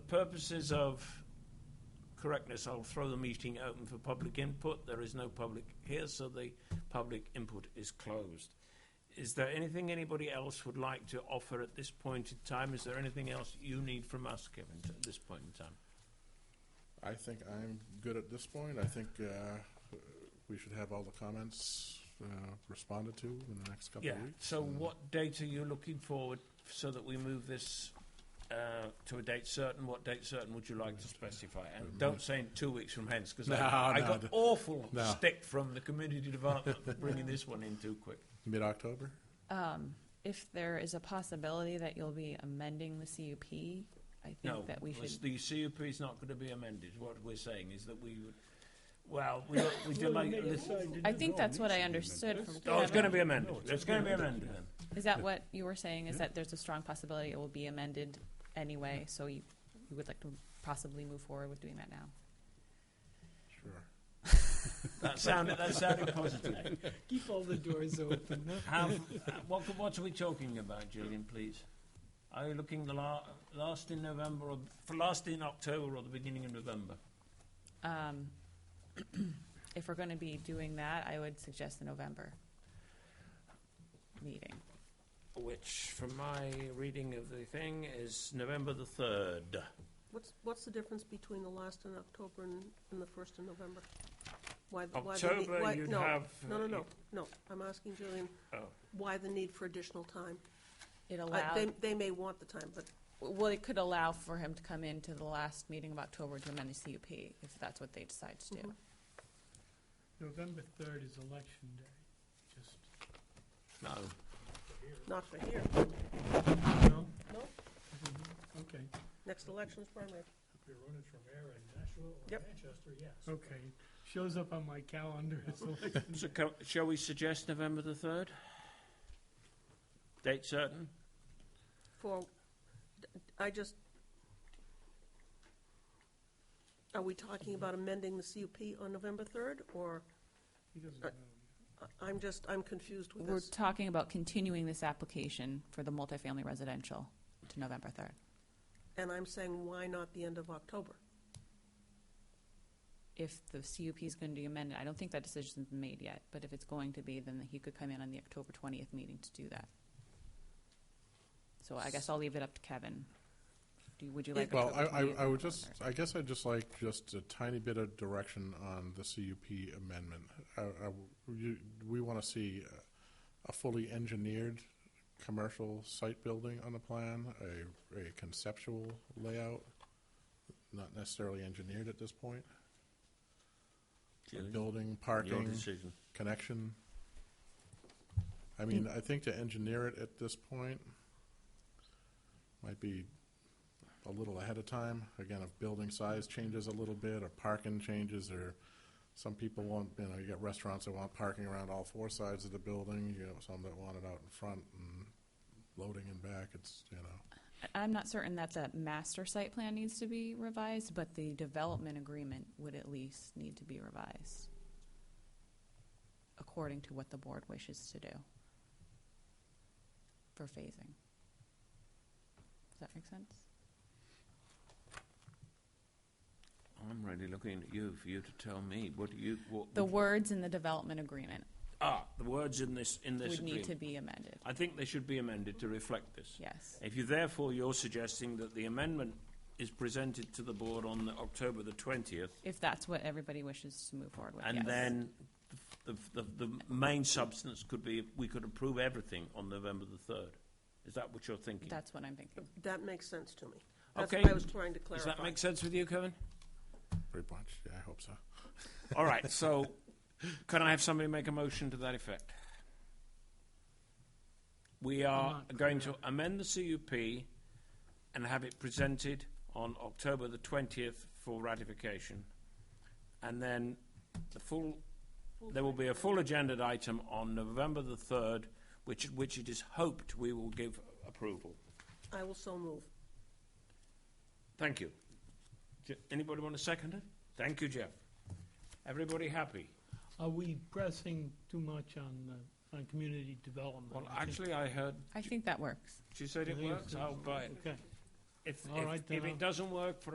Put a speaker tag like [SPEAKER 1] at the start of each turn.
[SPEAKER 1] purposes of correctness, I'll throw the meeting open for public input. There is no public here, so the public input is closed. Is there anything anybody else would like to offer at this point in time? Is there anything else you need from us, Kevin, at this point in time?
[SPEAKER 2] I think I'm good at this point. I think uh, we should have all the comments uh, responded to in the next couple
[SPEAKER 1] Yeah,
[SPEAKER 2] of weeks. Uh,
[SPEAKER 1] so
[SPEAKER 2] and-
[SPEAKER 1] what date are you looking forward so that we move this uh, to a date certain? What date certain would you like to specify? And don't say in two weeks from hence, because
[SPEAKER 2] Mm-hmm. No,
[SPEAKER 1] I, I
[SPEAKER 2] no,
[SPEAKER 1] got
[SPEAKER 2] d-
[SPEAKER 1] awful
[SPEAKER 2] no.
[SPEAKER 1] stick from the community development for bringing this one in too quick.
[SPEAKER 2] Mid-October?
[SPEAKER 3] Um, if there is a possibility that you'll be amending the CUP, I
[SPEAKER 1] No,
[SPEAKER 3] think that we
[SPEAKER 1] it's-
[SPEAKER 3] should,
[SPEAKER 1] the CUP is not going to be amended. What we're saying is that we would, well, we, we delay.
[SPEAKER 3] I think that's what I understood from
[SPEAKER 1] Oh, it's going to be
[SPEAKER 3] Kevin.
[SPEAKER 1] amended. It's going to be amended then.
[SPEAKER 3] Is that what you were saying, is that there's a strong possibility it will be amended anyway, so you, you would like to possibly move forward with doing that now?
[SPEAKER 2] Sure.
[SPEAKER 1] That sounded, that sounded positive.
[SPEAKER 4] Keep all the doors open.
[SPEAKER 1] Have, what, what are we talking about, Julian, please? Are you looking the la- last in November or for last in October or the beginning of November?
[SPEAKER 3] Um, if we're gonna be doing that, I would suggest the November meeting.
[SPEAKER 1] Which, from my reading of the thing, is November the 3rd.
[SPEAKER 5] What's, what's the difference between the last in October and, and the first in November? Why the- why the need-
[SPEAKER 1] October,
[SPEAKER 5] why-
[SPEAKER 1] you'd
[SPEAKER 5] no,
[SPEAKER 1] have.
[SPEAKER 5] No, no, no, no, I'm asking Julian,
[SPEAKER 1] Oh.
[SPEAKER 5] why the need for additional time?
[SPEAKER 3] It
[SPEAKER 5] I-
[SPEAKER 3] allowed.
[SPEAKER 5] They, they may want the time, but
[SPEAKER 3] Well, it could allow for him to come into the last meeting of October to amend the CUP, if that's what they decide to do.
[SPEAKER 5] Mhm.
[SPEAKER 4] November third is election day, just,
[SPEAKER 1] No.
[SPEAKER 5] not for here,
[SPEAKER 4] no?
[SPEAKER 5] No.
[SPEAKER 4] Mm-hmm. Okay,
[SPEAKER 5] next election's primary.
[SPEAKER 6] If you're running from Aaron, Nashville or
[SPEAKER 5] Yep.
[SPEAKER 6] Manchester, yes.
[SPEAKER 4] okay, shows up on my calendar as election
[SPEAKER 1] So,
[SPEAKER 4] day.
[SPEAKER 1] co- shall we suggest November the 3rd? Date certain?
[SPEAKER 5] For, I just, are we talking about amending the CUP on November 3rd, or,
[SPEAKER 4] He doesn't
[SPEAKER 5] Uh,
[SPEAKER 4] know.
[SPEAKER 5] I- I'm just, I'm confused with
[SPEAKER 3] We're
[SPEAKER 5] this.
[SPEAKER 3] talking about continuing this application for the multifamily residential to November third.
[SPEAKER 5] And I'm saying, why not the end of October?
[SPEAKER 3] If the CUP is going to be amended, I don't think that decision's been made yet, but if it's going to be, then he could come in on the October twentieth meeting to do that. So I guess I'll leave it up to Kevin. Do, you- would you like?
[SPEAKER 2] Well, I,
[SPEAKER 3] October
[SPEAKER 2] I-
[SPEAKER 3] 20th
[SPEAKER 2] I would
[SPEAKER 3] or
[SPEAKER 2] just,
[SPEAKER 3] third?
[SPEAKER 2] I guess I'd just like just a tiny bit of direction on the CUP amendment. I, I- you- we want to see uh, a fully engineered commercial site building on the plan, a, a conceptual layout, not necessarily engineered at this point. Building,
[SPEAKER 1] Your
[SPEAKER 2] parking,
[SPEAKER 1] decision.
[SPEAKER 2] connection. I mean, I think to engineer it at this point might be a little ahead of time. Again, if building size changes a little bit, or parking changes, or some people want, you know, you got restaurants that want parking around all four sides of the building, you know, some that want it out in front and loading and back, it's, you know,
[SPEAKER 3] I'm not certain that the master site plan needs to be revised, but the development agreement would at least need to be revised according to what the board wishes to do for phasing. Does that make sense?
[SPEAKER 1] I'm really looking at you for you to tell me. What do you. What,
[SPEAKER 3] The words in the development agreement
[SPEAKER 1] ah, the words in this, in this
[SPEAKER 3] would need
[SPEAKER 1] agreement.
[SPEAKER 3] to be amended,
[SPEAKER 1] I think they should be amended to reflect this.
[SPEAKER 3] yes.
[SPEAKER 1] If you therefore you're suggesting that the amendment is presented to the board on the October the twentieth,
[SPEAKER 3] If that's what everybody wishes to move forward with, yes.
[SPEAKER 1] and then the, the, the main substance could be we could approve everything on November the third. Is that what you're thinking?
[SPEAKER 3] That's what I'm thinking.
[SPEAKER 5] That makes sense to me. That's
[SPEAKER 1] Okay.
[SPEAKER 5] what I was trying to
[SPEAKER 1] Does
[SPEAKER 5] clarify.
[SPEAKER 1] that make sense with you, Kevin?
[SPEAKER 2] pretty much, yeah, I hope so.
[SPEAKER 1] All right. So, can I have somebody make a motion to that effect? We are
[SPEAKER 4] not
[SPEAKER 1] going to
[SPEAKER 4] clear.
[SPEAKER 1] amend the CUP and have it presented on October the 20th for ratification. And then the full, there will be a full agenda item on November the 3rd, which, which it is hoped we will give approval.
[SPEAKER 5] I will so move.
[SPEAKER 1] Thank you. Je- Anybody want to second it? Thank you, Jeff. Everybody happy?
[SPEAKER 4] Are we pressing too much on, the- on community development?
[SPEAKER 1] Well,
[SPEAKER 4] I think?
[SPEAKER 1] actually, I heard
[SPEAKER 3] I think that works.
[SPEAKER 1] She said it
[SPEAKER 4] Believe
[SPEAKER 1] works.
[SPEAKER 4] so.
[SPEAKER 1] I'll buy it.
[SPEAKER 4] Okay,
[SPEAKER 1] If,
[SPEAKER 4] All
[SPEAKER 1] if-
[SPEAKER 4] right,
[SPEAKER 1] if
[SPEAKER 4] then I'll-
[SPEAKER 1] it doesn't work for